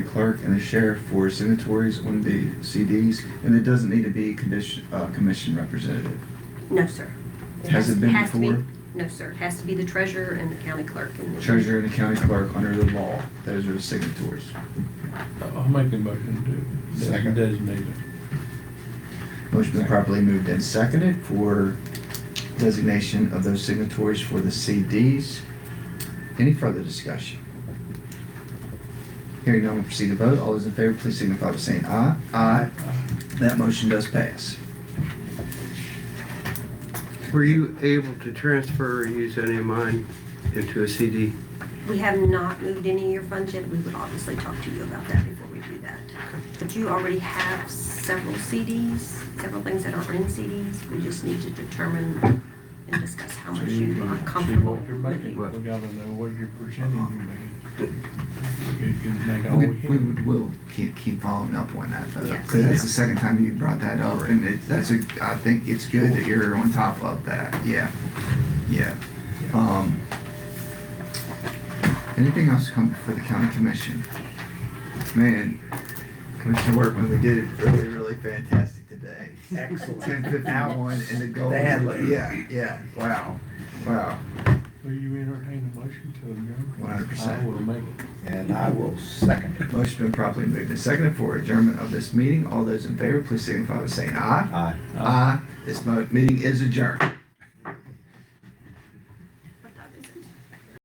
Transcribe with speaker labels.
Speaker 1: clerk and the sheriff for signatories on the CDs, and it doesn't need to be commission, uh, commission representative.
Speaker 2: No, sir.
Speaker 1: Has it been
Speaker 2: has to be-
Speaker 1: before?
Speaker 2: No, sir. It Has to be the treasurer and the county clerk. and the-
Speaker 1: Treasurer and the county clerk under the law, those are the signatories.
Speaker 3: I'll make a motion to
Speaker 1: Second.
Speaker 3: designate it.
Speaker 1: Motion been properly moved and seconded for designation of those signatories for the CDs. Any further discussion? Hearing none, we'll proceed to vote. All those in favor, please signify by saying aye. Aye. That motion does pass.
Speaker 4: Were you able to transfer or use any of mine into a CD?
Speaker 2: We have not moved any of your funds yet. We would obviously talk to you about that before we do that. But you already have several CDs, several things that are in CDs. We just need to determine and discuss how much you are comfortable
Speaker 3: See what you're making.
Speaker 2: with.
Speaker 3: We gotta know what your percentage you're making. You can make all
Speaker 1: We,
Speaker 3: we
Speaker 1: we
Speaker 3: can.
Speaker 1: will keep, keep following up on that though,
Speaker 2: Yes.
Speaker 1: because that's the second time you brought that up, and it, that's a, I think it's good that you're on top of that, yeah, yeah. Um, anything else come for the county commission? Man, Commissioner Workman, we did it really, really fantastic today.
Speaker 5: Excellent.
Speaker 1: Ten fifty-one and the gold.
Speaker 5: They had like-
Speaker 1: Yeah, yeah, wow, wow,
Speaker 3: Will you entertain a motion to adjourn?
Speaker 1: 100%.
Speaker 3: I will make it.
Speaker 5: And I will second it.
Speaker 1: Motion been properly moved and seconded for adjournment of this meeting. All those in favor, please signify by saying aye.
Speaker 5: Aye.
Speaker 1: Aye. This mo- meeting is adjourned.